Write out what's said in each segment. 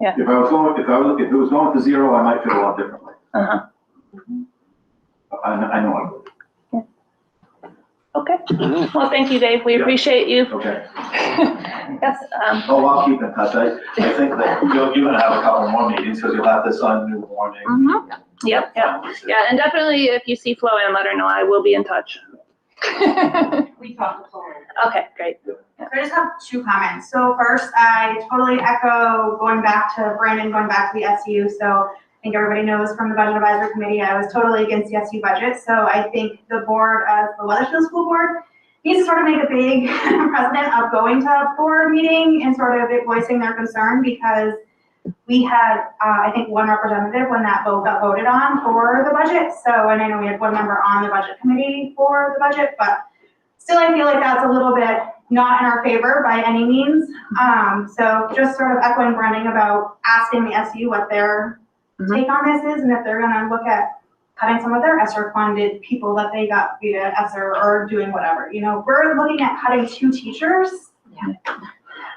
Yeah. If I was going, if I was, if it was going to zero, I might feel a lot differently. Uh-huh. I, I know I would. Okay. Well, thank you, Dave. We Yeah. appreciate you. Okay. Yes, um, Oh, I'll keep in touch. I, I think that you're, you're gonna have a couple more meetings because you'll have this on new warning. mhm. Mm-hmm. Yep, yep. Yeah, and definitely if you see Flo Ann, let her know. I will be in touch. Okay, we talked before. great. So I just have two comments. So first, I totally echo going back to Brandon, going back to the SU. So I think everybody knows from the Budget Advisory Committee, I was totally against the SU budget. So I think the board, as the Weathersfield School Board, needs to sort of make a big precedent of going to a board meeting and sort of voicing their concern because we had, uh, I think, one representative when that vote got voted on for the budget. So, and I know we had one member on the Budget Committee for the budget, but still, I feel like that's a little bit not in our favor by any means. Um, so just sort of echoing Brennan about asking the SU what their Mhm. take on this is and if they're gonna look at cutting some of their ESSER funded people that they got via ESSER or doing whatever, you know, we're looking at cutting two teachers.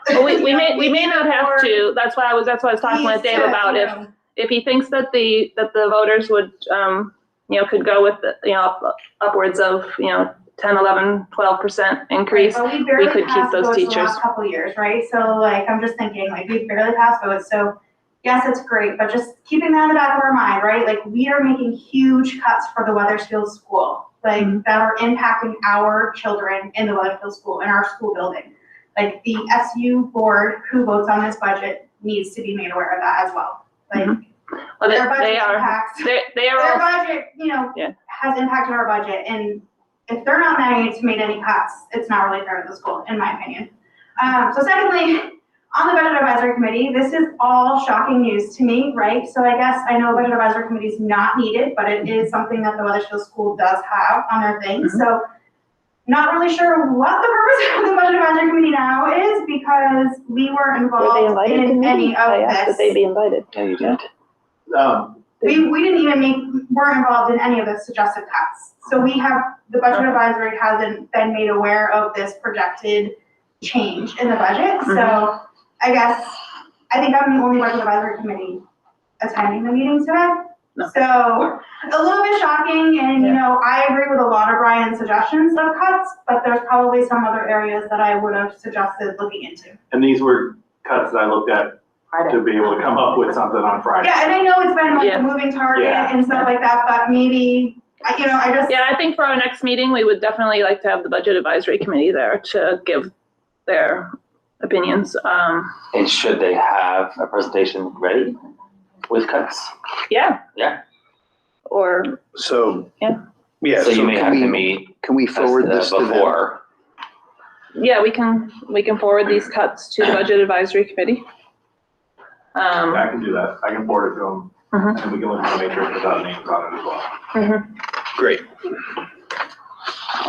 Well, we, we may, we may not have to. That's why I was, that's why I was talking with Please, Dave uh, about you if, know, if he thinks that the, that the voters would, um, you know, could go with, the you know, up- upwards of, you know, 10, 11, 12% increase. Right, but we barely could keep passed those votes the teachers. last Couple years, right? So like, I'm just thinking, like, we barely passed votes, so yes, it's great, but just keeping that in the back of our mind, right? Like, we are making huge cuts for the Weathersfield School, like, Mm-hmm. that are impacting our children in the Weathersfield School, in our school building. Like, the SU board who votes on this budget needs to be made aware of that as well. Like, Well, Mm-hmm. they, their budget they are, impacts they, they their are all, budget, you know, Yeah. has impacted our budget, and if they're not managing to make any cuts, it's not really fair to the school, in my opinion. Um, so secondly, on the budget advisory committee, this is all shocking news to me, right? So I guess I know budget advisory committee is not needed, but it is something that the Weathersfield School does have on their thing, Mm-hmm. so not really sure what the purpose of the budget advisory committee now is, because we were Were they involved invited to in any meetings? I asked that of they this. be invited. No, you didn't. Um, We, we didn't even make, weren't involved in any of the suggested cuts. So we have, the budget advisory hasn't been made aware of this projected change in the budget. So Mm-hmm. I guess, I think I'm the only budget advisory committee attending the meeting today. No. So a little bit shocking and, you know, I agree with a lot of Brian's suggestions of cuts, but there's probably some other areas that I would have suggested looking into. And these were cuts that I looked at to be able to come up with something on Friday. Yeah, and I know it's been like Yeah. a moving target Yeah. and stuff like that, but maybe, I- you know, I just. yeah, I think for our next meeting, we would definitely like to have the budget advisory committee there to give their opinions. Um, And should they have a presentation ready with cuts? yeah. Yeah. Or, So. Yeah. Yeah. So you may can have to we- meet Can we us forward the- this to them? Before, yeah, we can, we can forward these cuts to the budget advisory committee. Um, I can do that. I can forward it to Mm-hmm. them and we can look at the matrix without names on it as well. Great.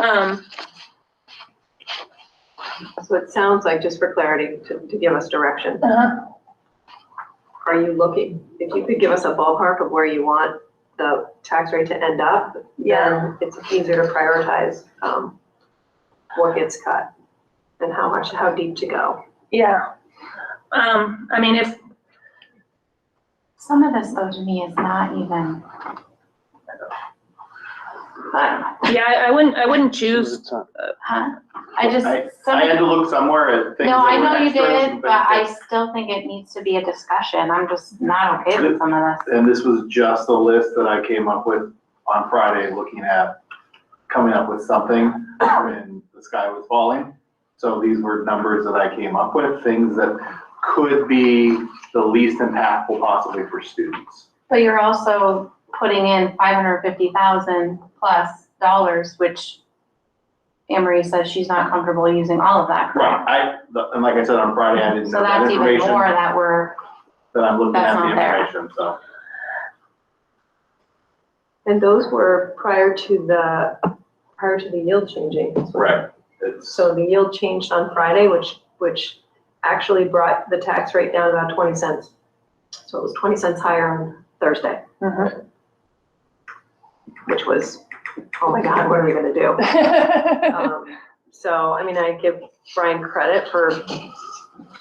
um, So it sounds like, just for clarity, to, to give us direction, Uh-huh. are you looking, if you could give us a ballpark of where you want the tax rate to end up, then it's easier to prioritize, um, what gets cut and how much, how deep to go. yeah. Um, I mean, if, Some of this though to me is not even, But yeah, I I wouldn't, I wouldn't choose It's not- huh? I just, some I of had it- to look somewhere at things. no, that I were know you extras, did, but I still think it needs to be a discussion. I'm just not okay with some of this. And this was just a list that I came up with on Friday, looking at coming up with something when the sky was falling. So these were numbers that I came up with, things that could be the least impactful possibly for students. But you're also putting in five hundred fifty thousand plus dollars, which Anne Marie says she's not comfortable using all of that, correct? I, the- and like I said on Friday, I didn't So know that that's even information, more that we're, that I'm looking that's at the not there. information, so. And those were prior to the, prior to the yield changing. Right. It's, So the yield changed on Friday, which, which actually brought the tax rate down about twenty cents. So it was twenty cents higher on Thursday. Which was, oh my God, what are we gonna do? Um, So, I mean, I give Brian credit for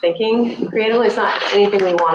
thinking creatively. It's not anything we want